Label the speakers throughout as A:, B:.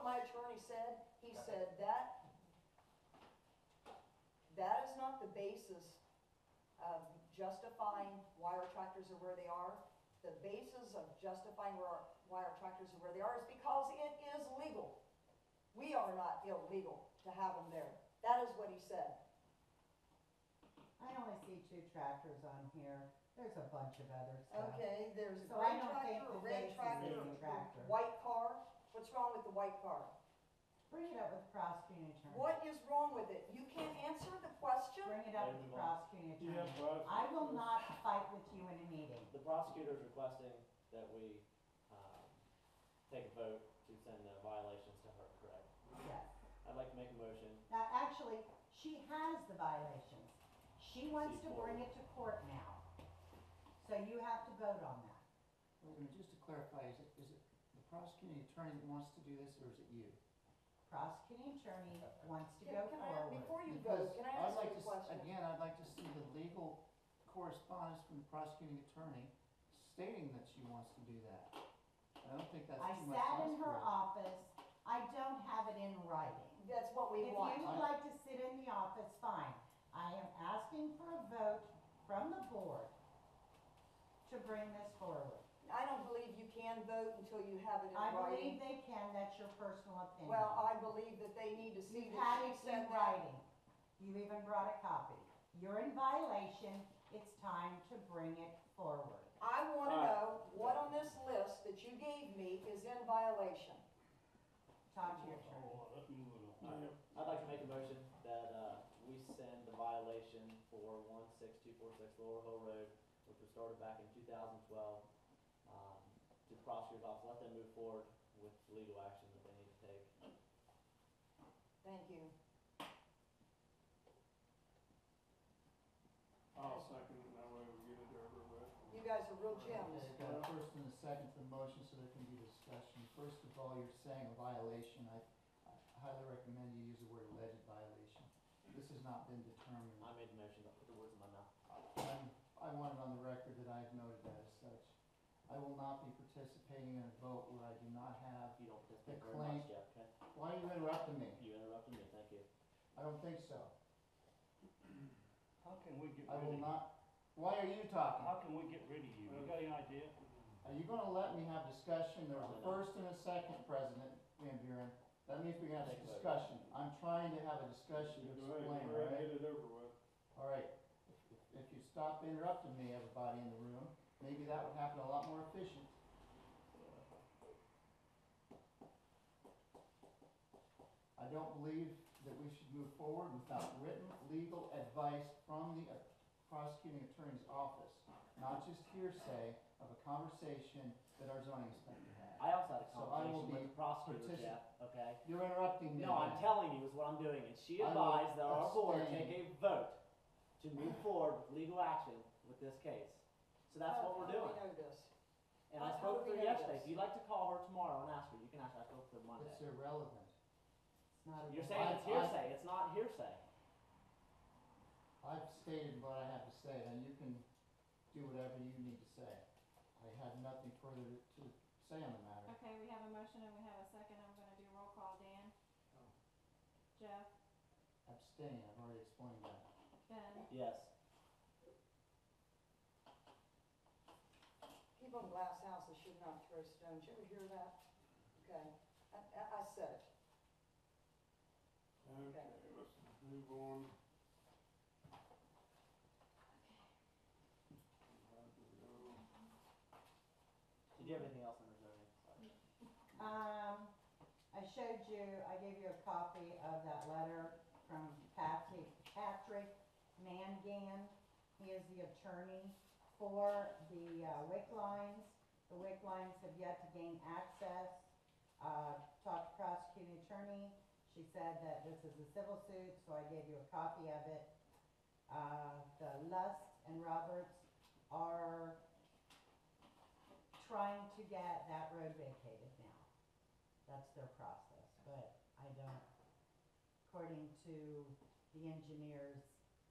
A: my attorney said, he said that, that is not the basis of justifying why our tractors are where they are. The basis of justifying where our, why our tractors are where they are is because it is legal. We are not illegal to have them there. That is what he said.
B: I only see two tractors on here, there's a bunch of other stuff.
A: Okay, there's a
B: So I
A: gray
B: don't
A: tractor,
B: think
A: a
B: the
A: red
B: base
A: tractor,
B: is
A: a
B: the tractor.
A: white car. What's wrong with the white car?
B: Bring it up with the prosecuting attorney.
A: What is wrong with it? You can't answer the question?
B: Bring it up with the
C: Everyone.
B: prosecuting
C: You have brought-
B: attorney. I will not fight with you in a meeting.
C: The prosecutor's requesting that we, um, take a vote to send the violations to her, correct?
B: Yes.
C: I'd like to make a motion.
B: Now, actually, she has the violations. She wants to bring it to court now. So you have to vote on that.
D: Wait a minute, just to clarify, is it, is it the prosecuting attorney that wants to do this, or is it you?
B: Prosecuting attorney wants to
A: Can
B: go
A: can I,
B: forward.
A: before you go,
D: Because
A: can I
D: I'd
A: ask you
D: like to
A: a
D: s-
A: question?
D: Again, I'd like to see the legal correspondence from the prosecuting attorney stating that she wants to do that. I don't think that's
B: I
D: too much to
B: sat in
D: ask
B: her
D: for.
B: office. I don't have it in writing.
A: That's what we
B: If you
A: want.
B: would like to sit in the office, fine. I am asking for a vote from the board to bring this forward.
A: I don't believe you can vote until you have it in
B: I believe
A: writing.
B: they can, that's your personal opinion.
A: Well, I believe that they need to see
B: You've
A: that
B: had
A: she
B: it in
A: said that.
B: writing. You even brought a copy. You're in violation, it's time to bring it forward.
A: I want to
C: All right.
A: know what on this list that you gave me is in violation.
B: Talk to your attorney.
C: I'd like to make a motion that, uh, we send the violation for one six two four six Lower Hill Road, which was started back in two thousand twelve, um, to the prosecutor's office, let them move forward with the legal action that they need to take.
A: Thank you.
E: I'll second it, that way we get it over with.
A: You guys are real gems.
D: We've got a first and a second for the motion, so there can be discussion. First of all, you're saying a violation. I I highly recommend you use the word alleged violation. This has not been determined.
C: I made the motion, don't put the words in my mouth.
D: I'm- I want it on the record that I have noted that as such. I will not be participating in a vote where I do not have,
C: You don't participate
D: The
C: very much,
D: claim-
C: Jeff, okay?
D: why are you interrupting me?
C: You interrupted me, thank you.
D: I don't think so.
F: How can we get
D: I
F: rid of
D: will
F: you?
D: not, why are you talking?
F: How can we get rid of you? You got any idea?
D: Are you gonna let me have discussion? There was a first and a second, President Van Buren. That means we can have a discussion. I'm trying to have a discussion to
E: Go ahead,
D: explain, all
E: go ahead and
D: right?
E: get it over with.
D: All right, if if you stop interrupting me, everybody in the room, maybe that would happen a lot more efficient. I don't believe that we should move forward without written legal advice from the prosecuting attorney's office, not just hearsay of a conversation that our zoning inspector had.
C: I also had a
D: So I will
C: conversation with
D: be
C: the prosecutor,
D: partici-
C: Jeff, okay?
D: You're interrupting me.
C: No, I'm telling you is what I'm doing, and she
D: I will
C: advised that our board
D: abstain.
C: take a vote to move forward with legal action with this case. So that's what we're
A: How do we Oh,
C: doing.
A: know this?
C: And
A: how-
C: I
A: how do
C: spoke to her
A: we know
C: yesterday,
A: this?
C: if you'd like to call her tomorrow and ask her, you can ask her, I spoke to her Monday.
D: It's irrelevant.
B: It's not a-
C: You're saying it's
D: I- I-
C: hearsay, it's not hearsay.
D: I've stated what I have to say, and you can do whatever you need to say. I had nothing further to to say on the matter.
G: Okay, we have a motion and we have a second, I'm gonna do roll call, Dan. Jeff,
D: Abstain, I've already explained that.
G: Ben,
C: Yes,
A: People in glass houses should not throw stones. You ever hear that? Okay, I, I- I said it.
E: Okay, let's move on.
C: did you have anything else in reserve?
B: Um, I showed you, I gave you a copy of that letter from Patrick, Patrick Mangan. He is the attorney for the uh, WIC lines. The WIC lines have yet to gain access. Uh, talked to prosecuting attorney. She said that this is a civil suit, so I gave you a copy of it. Uh, the Lust and Roberts are trying to get that road vacated now. That's their process, but I don't, according to the engineers,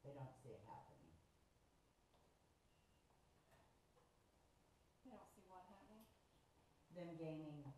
B: they don't see it happening.
G: we don't see what happening.
B: Them gaining